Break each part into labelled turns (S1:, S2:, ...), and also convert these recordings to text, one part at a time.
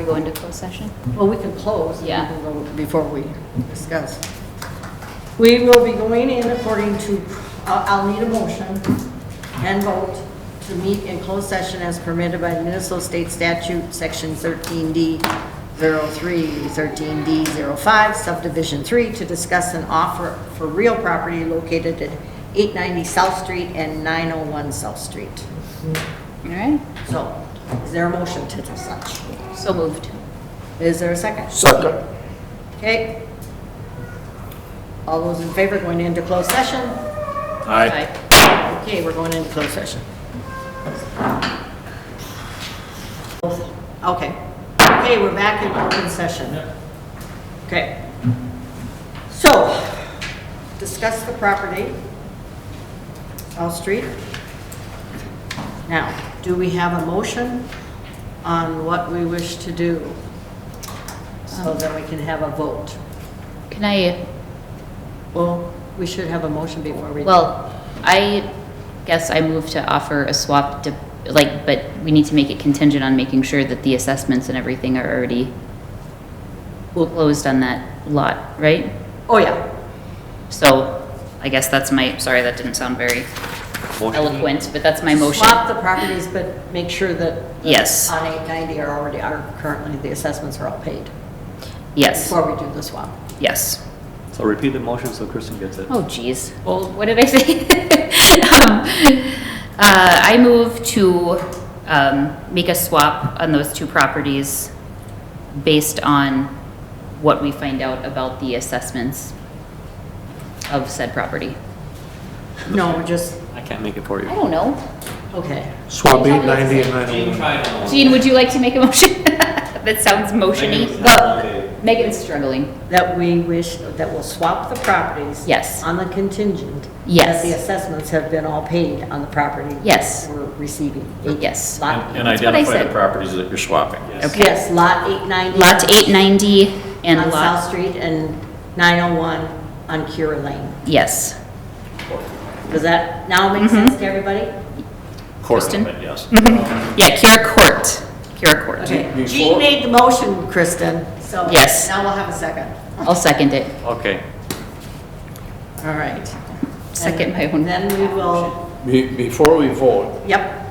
S1: We go into closed session?
S2: Well, we can close.
S1: Yeah.
S2: Before we discuss. We will be going in according to, uh, I'll need a motion and vote to meet in closed session as permitted by Minnesota State Statute, Section 13D 03, 13D 05, Subdivision 3, to discuss an offer for real property located at 890 South Street and 901 South Street.
S1: All right,
S2: So, is there a motion to do such?
S1: so moved.
S2: Is there a second?
S3: Second.
S2: Okay. All those in favor going into closed session?
S3: Aye.
S1: Aye.
S2: Okay, we're going into closed session. Okay. Okay, we're back in open session. Okay. So, discuss the property, South Street. Now, do we have a motion on what we wish to do? So that we can have a vote.
S1: Can I,
S2: Well, we should have a motion before we.
S1: well, I guess I move to offer a swap, to- like, but we need to make it contingent on making sure that the assessments and everything are already closed on that lot, right?
S2: Oh, yeah.
S1: So I guess that's my, sorry, that didn't sound very eloquent, but that's my motion.
S2: Swap the properties, but make sure that
S1: Yes,
S2: on 890 are already, are currently, the assessments are all paid
S1: yes,
S2: before we do the swap.
S1: yes.
S4: So repeat the motion so Kristen gets it.
S1: Oh, geez. Well, what did I say? Um, uh, I move to um, make a swap on those two properties based on what we find out about the assessments of said property.
S2: No, just,
S4: I can't make it for you.
S1: I don't know.
S2: okay.
S3: Swap eight ninety and nine oh
S1: Jean, would you like to make a motion? That sounds motiony.
S5: Megan's
S1: Well, Megan's struggling.
S2: That we wish, that we'll swap the properties.
S1: Yes.
S2: On the contingent.
S1: Yes.
S2: That the assessments have been all paid on the property.
S1: Yes.
S2: We're receiving.
S1: Yes.
S2: Lot,
S5: And
S1: That's what I
S5: identify
S1: said.
S5: the properties that you're swapping.
S1: Okay.
S2: yes, lot 890.
S1: Lot 890 and
S2: On South
S1: lot,
S2: Street and 901 on Cure Lane.
S1: yes.
S2: Does that now make
S1: Mm-hmm.
S2: sense to everybody?
S1: Kristen?
S5: But yes.
S1: Yeah, Kira Court. Kira Court.
S2: Okay, Jean made the motion, Kristen, so.
S1: Yes.
S2: Now we'll have a second.
S1: I'll second it.
S4: Okay.
S2: All right.
S1: Second my own.
S2: Then we will,
S3: Be- Before we vote,
S2: yep.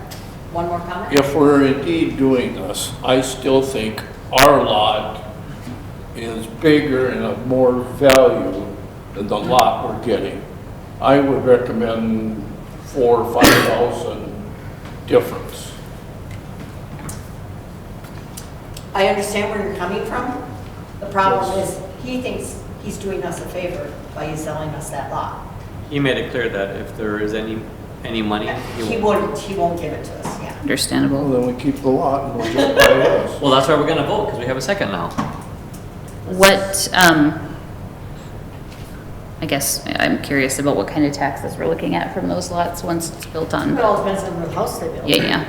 S2: One more comment?
S3: if we're indeed doing this, I still think our lot is bigger and of more value than the lot we're getting. I would recommend four or five thousand difference.
S2: I understand where you're coming from. The problem is, he thinks he's doing us a favor by he's selling us that lot.
S4: He made it clear that if there is any, any money,
S2: He
S4: he will.
S2: wouldn't, he won't give it to us, yeah.
S3: Well,
S1: Understandable.
S3: then we keep the lot and we'll get by us.
S4: Well, that's why we're gonna vote, because we have a second now.
S1: What, um, I guess I'm curious about what kind of taxes we're looking at from those lots once it's built on.
S2: It all depends on the house they build.
S1: Yeah, yeah.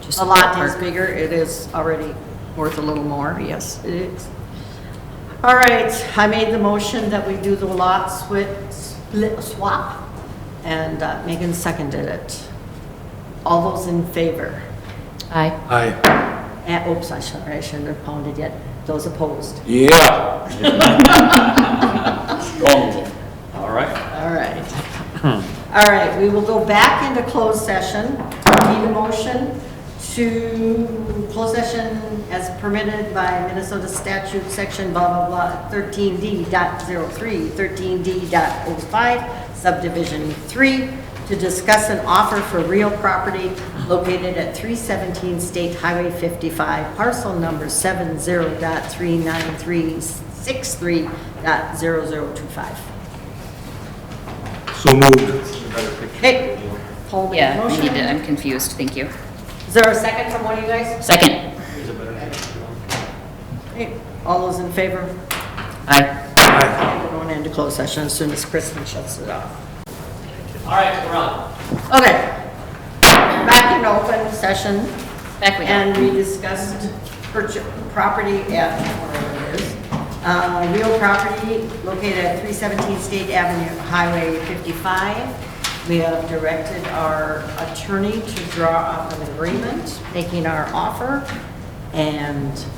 S1: Just
S2: A lot is
S1: ballpark.
S2: bigger, it is already worth a little more, yes, it is. All right, I made the motion that we do the lot split, split swap, and uh, Megan seconded it. All those in favor?
S1: Aye.
S3: Aye.
S2: Eh, Oops, I shouldn't, I shouldn't have pounded yet. Those opposed?
S3: Yeah. Strong.
S4: All right.
S2: All right. All right, we will go back into closed session. Need a motion to close session as permitted by Minnesota statute, section blah, blah, blah, 13D dot 03, 13D dot 05, subdivision 3, to discuss an offer for real property located at 317 State Highway 55, parcel number 70 dot 39363 dot 0025.
S3: So moved.
S2: Hey, Paul made the
S1: Yeah, I
S2: motion.
S1: need to, I'm confused. Thank you.
S2: Is there a second from one of you guys?
S1: Second.
S2: Hey, All those in favor?
S1: Aye.
S2: We're going into closed session as soon as Kristen shuts it off.
S4: All right, we're on.
S2: Okay. Back in open session,
S1: Back we go.
S2: and we discussed purchase, property at, wherever it is, uh, real property located at 317 State Avenue, Highway 55. We have directed our attorney to draw up an agreement, making our offer. and